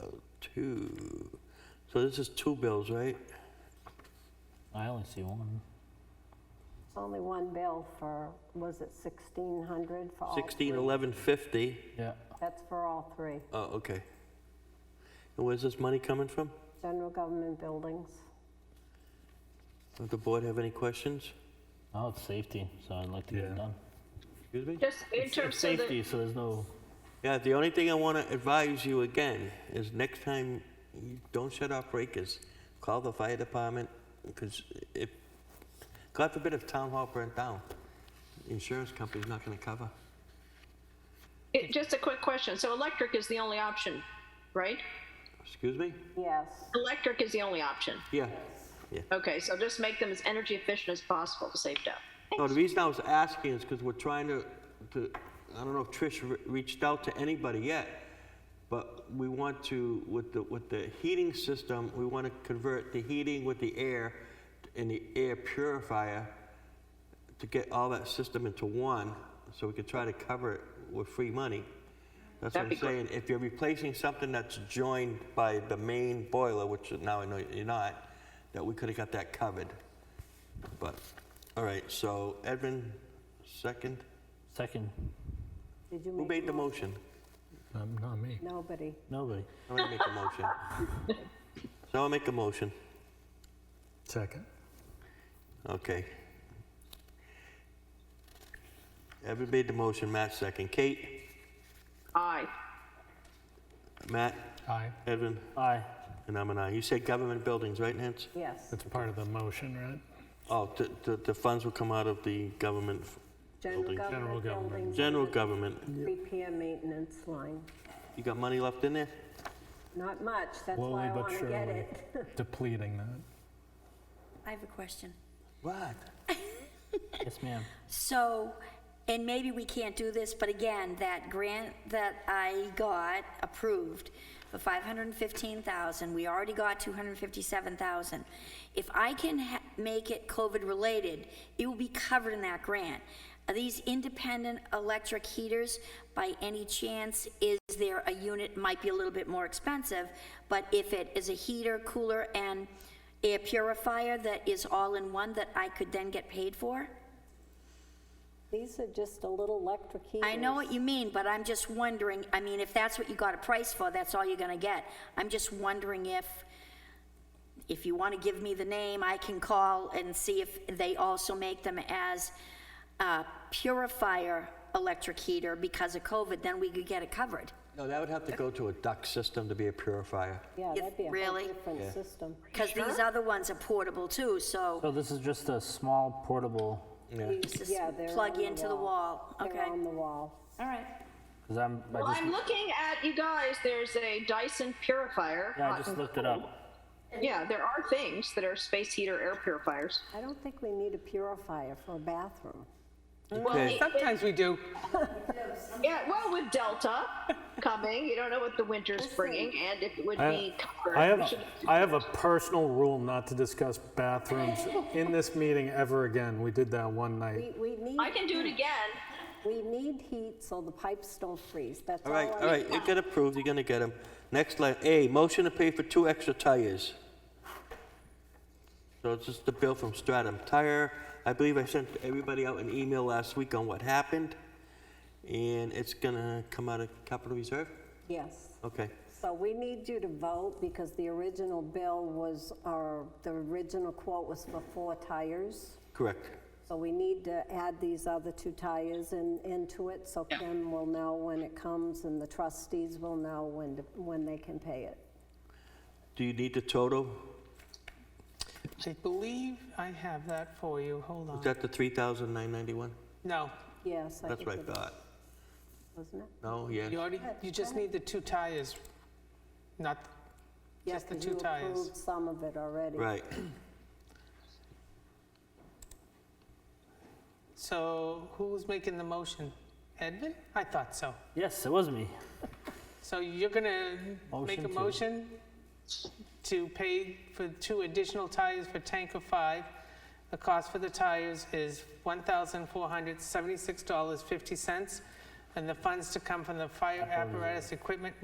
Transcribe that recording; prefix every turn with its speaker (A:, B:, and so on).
A: Oh, two. So this is two bills, right?
B: I only see one.
C: Only one bill for, was it 1,600 for all three?
A: Sixteen eleven fifty.
B: Yeah.
C: That's for all three.
A: Oh, okay. And where's this money coming from?
C: General government buildings.
A: Does the board have any questions?
B: Now it's safety, so I'd like to get it done.
A: Excuse me?
D: Just in
B: It's- It's
D: terms of the,
B: safety, so there's no,
A: Yeah, the only thing I want to advise you again is next time, you don't shut off breakers. Call the fire department, because if, God forbid if town hall burnt down, the insurance company's not going to cover.
D: it- just a quick question. So electric is the only option, right?
A: Excuse me?
C: Yes,
D: Electric is the only option.
A: Yeah. Yeah.
D: Okay, so just make them as energy efficient as possible to save death.
A: No, the reason I was asking is because we're trying to, to, I don't know if Trish re- reached out to anybody yet, but we want to, with the, with the heating system, we want to convert the heating with the air and the air purifier to get all that system into one, so we could try to cover it with free money. That's what
D: That'd
A: I'm
D: be
A: saying,
D: great.
A: if you're replacing something that's joined by the main boiler, which now I know you're not, that we could have got that covered. But, all right, so Edvin, second.
B: second,
C: did you
A: Who
C: make,
A: made the motion?
E: Um, not me.
C: nobody.
B: nobody.
A: I'm gonna make a motion. So I'll make a motion.
E: Second.
A: Okay. Edvin made the motion, Matt second. Kate,
D: Aye.
A: Matt,
E: Aye.
A: Edvin,
B: Aye.
A: and I'm an aye. You said government buildings, right, Nance?
C: Yes,
E: That's part of the motion, right?
A: Oh, the- the, the funds will come out of the government, f-
C: general
A: Building.
C: government
E: General government.
C: buildings.
A: general government.
C: Repair maintenance line.
A: You got money left in there?
C: Not much, that's why
E: Slowly
C: I
E: but
C: want to get
E: surely
C: it.
E: depleting that.
F: I have a question.
A: What?
B: Yes, ma'am.
F: So, and maybe we can't do this, but again, that grant that I got approved for 515,000, we already got 257,000. If I can ha- make it COVID-related, it will be covered in that grant. Are these independent electric heaters, by any chance, is there a unit, might be a little bit more expensive, but if it is a heater, cooler, and air purifier that is all in one that I could then get paid for?
C: These are just a little electric heaters.
F: I know what you mean, but I'm just wondering, I mean, if that's what you got a price for, that's all you're gonna get. I'm just wondering if, if you wanna give me the name, I can call and see if they also make them as uh, purifier electric heater because of COVID, then we could get it covered.
A: No, that would have to go to a duct system to be a purifier.
C: Yeah,
F: You-
C: that'd be a whole
F: really?
C: different system.
F: Because these other ones are portable too, so
B: So this is just a small portable,
F: just
C: Yeah, they're
F: plug
C: on the
F: into the wall,
C: They're
F: okay?
C: on the wall.
F: All right.
B: because I'm, I
D: Well,
B: just,
D: I'm looking at, you guys, there's a Dyson purifier. Uh,
B: yeah, I just looked it up.
D: Yeah, there are things that are space heater air purifiers.
C: I don't think we need a purifier for a bathroom.
A: Okay,
G: Sometimes we do.
D: Yeah, well, with Delta coming, you don't know what the winter's bringing, and if it would be covered.
E: I
D: we
E: have,
D: should-
E: I have a personal rule not to discuss bathrooms in this meeting ever again. We did that one night.
C: We, we need.
D: I can do it again.
C: We need heat so the pipes don't freeze, that's
A: all
C: all.
A: right,
C: I-
A: all right, you get approved, you're gonna get them. Next line, A, motion to pay for two extra tires. So it's just the bill from Stratum Tire. I believe I sent everybody out an email last week on what happened, and it's gonna come out of capital reserve?
C: Yes,
A: Okay,
C: so we need you to vote because the original bill was, or the original quote was for four tires.
A: correct.
C: So we need to add these other two tires in, into it, so Kim will know when it comes and the trustees will know when, to- when they can pay it.
A: Do you need the total?
G: I believe I have that for you. Hold
A: Is
G: on.
A: that the 3,991?
G: No,
C: Yes, I
A: That's what
C: think
A: I
C: it is,
A: thought.
C: wasn't it?
A: No, yes.
G: you already, you just need the two tires, not,
C: Yeah,
G: Just the
C: 'cause
G: two
C: You
G: tires.
C: approved some of it already.
A: Right.
G: so who's making the motion? Edvin? I thought so.
B: Yes, it was me.
G: So you're gonna make
B: Motion
G: a
B: to-
G: motion to pay for two additional tires for tanker five. The cost for the tires is $1,476.50, and the funds to come from the fire apparatus equipment